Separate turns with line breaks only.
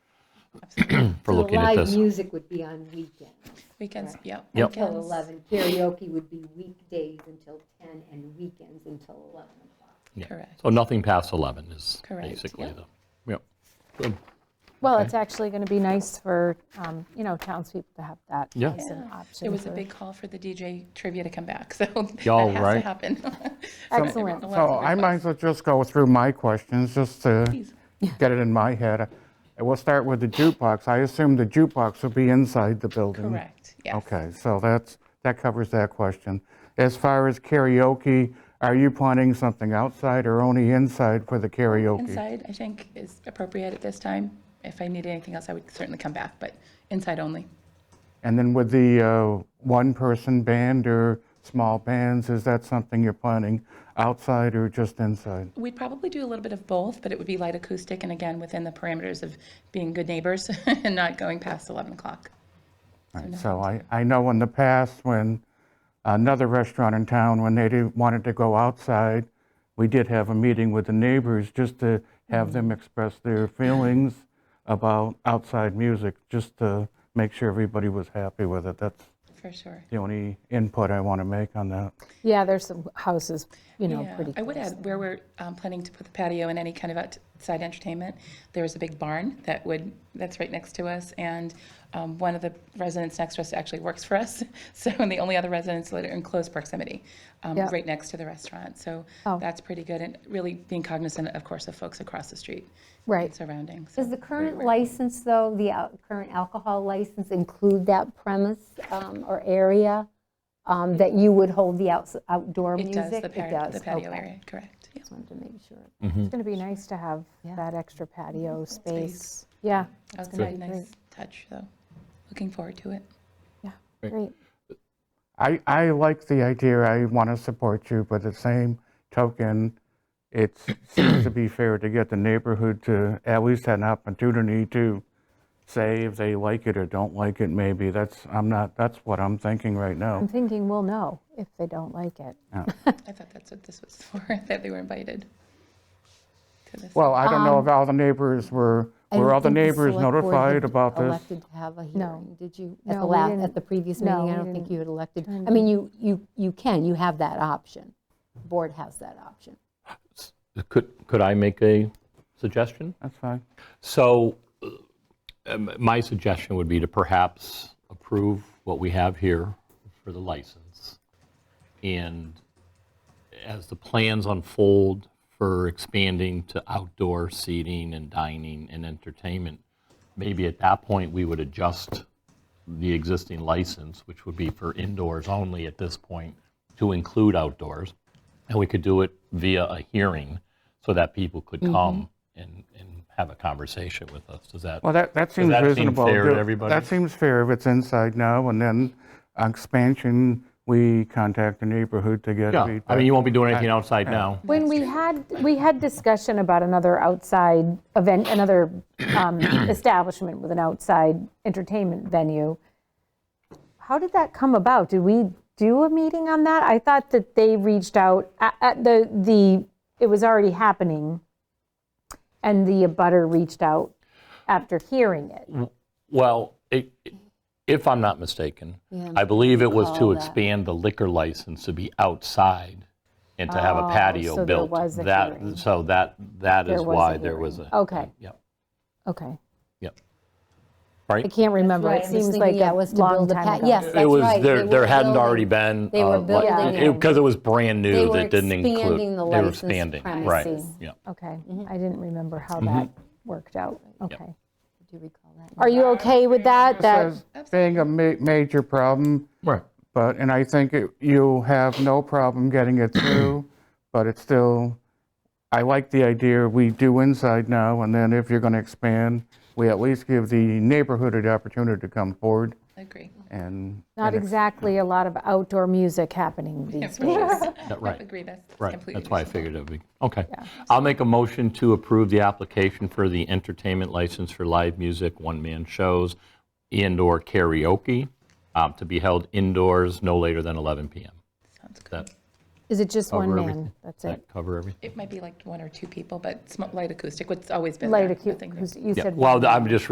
for
So the
looking at
Live
this.
music would be on weekends.
Weekends,
Correct.
yep.
Yep.
Till
weekends.
11. Karaoke would be weekdays until 10 and weekends until 11 o'clock.
Yeah.
Correct.
So nothing past 11 is
Correct,
basically
yep.
the, yep. Good.
Well, it's actually going to be nice for, um, you know, townspeople to have that
Yeah.
as an
Yeah.
option.
It was a
for-
big call for the DJ trivia to come back, so that
Y'all
has to
right.
happen.
Excellent.
Lots of
So Oh, I might as
requests.
well just go through my questions, just to get it in my head. And we'll start with the jukebox. I assume the jukebox will be inside the building?
Correct, yes.
Okay, so that's, that covers that question. As far as karaoke, are you planning something outside or only inside for the karaoke?
Inside, I think, is appropriate at this time. If I needed anything else, I would certainly come back, but inside only.
And then with the uh, one-person band or small bands, is that something you're planning outside or just inside?
We'd probably do a little bit of both, but it would be light acoustic, and again, within the parameters of being good neighbors and not going past 11 o'clock.
Right, So I, I know in the past, when another restaurant in town, when they didn't- wanted to go outside, we did have a meeting with the neighbors just to have them express their feelings about outside music, just to make sure everybody was happy with it. That's
For sure.
the only input I want to make on that.
Yeah, there's some houses, you know,
Yeah,
pretty
I would
close.
add, where we're um, planning to put the patio and any kind of outside entertainment, there is a big barn that would, that's right next to us, and um, one of the residents next to us actually works for us, so, and the only other residents that are in close proximity, um,
Yeah.
right next to the restaurant, so
Oh.
that's pretty good, and really being cognizant, of course, of folks across the street.
Right.
and Surrounding, so.
Does the current license, though, the al- current alcohol license include that premise um, or area um, that you would hold the outs- outdoor
It
music?
does, the patio, the patio
okay.
area, correct. yeah.
Just wanted to make sure.
It's going to be nice to have that extra patio space. Yeah,
That's gonna be a nice touch, though. Looking forward to it.
great.
I, I like the idea, I want to support you, but at the same token, it seems to be fair to get the neighborhood to at least have an opportunity to say if they like it or don't like it, maybe, that's, I'm not, that's what I'm thinking right
I'm
Mm-hmm.
now.
thinking we'll know if they don't like it.
I thought that's what this was for, that they were invited to this.
Well, I don't know if all the neighbors were,
Um, I
were
don't
all the
think
neighbors
select board
notified
had
about this?
Elected to have a hearing, did you? At
No,
the
we
last,
didn't.
at the previous
No,
meeting, I
we
don't think
didn't.
you had elected. I mean, you, you, you can, you have that option. The Board has that option.
Could, could I make a suggestion?
That's fine.
So uh, um, my suggestion would be to perhaps approve what we have here for the license. And as the plans unfold for expanding to outdoor seating and dining and entertainment, maybe at that point, we would adjust the existing license, which would be for indoors only at this point, to include outdoors. And we could do it via a hearing so that people could come and, and have a conversation with us. Does that?
Well, that, that seems
that seem
reasonable.
fair to
Do-
everybody?
That seems fair if it's inside now, and then expansion, we contact the neighborhood to get
Yeah,
feedback.
I mean, you won't be doing anything outside now.
When we had, we had discussion about another outside event, another um, establishment with an outside entertainment venue. How did that come about? Did we do a meeting on that? I thought that they reached out, a- at the, the, it was already happening, and the abutter reached out after hearing it.
Well, i- i- if I'm not mistaken, I believe it was to expand the liquor license to be outside and to have a
Oh,
patio
so there
built.
was a
That-
hearing.
So that, that
There
is
was a
why there
hearing.
was a.
Okay.
Yep,
Okay,
yep.
I
Right?
can't remember.
right.
It
I'm
seems
just
like
thinking that
a
was to
long
build a
time
pat-
ago.
yes,
It
That's
was,
right.
there
They
there
were
hadn't already
building-
been.
they were building it.
Because it was brand
They
new
were
that didn't include.
expanding the
they were
licensed
expanding,
premises.
Right, yeah.
Okay, I didn't remember how
Mm-hmm.
that worked out. Okay.
Do you recall that?
Are you okay with that? That
as being a ma- major problem,
Right.
but, and I think it- you have no problem getting it through, but it's still, I like the idea, we do inside now, and then if you're going to expand, we at least give the neighborhood the opportunity to come forward
Agree.
and.
Not exactly a lot of outdoor music happening these days.
Yeah, Right.
Agree, that's
Right,
completely.
that's why I
reasonable.
figured it would be, okay. I'll make a motion to approve the application for the entertainment license for live music, one-man shows, indoor karaoke, um, to be held indoors no later than 11 PM.
Sounds good.
That,
Is it just one
Over
man?
everything.
That's it?
that cover everything?
It might be like one or two people, but sm- light acoustic, what's always been there.
Light
nothing
acoustic,
new.
you
Yeah,
said.
well, I'm just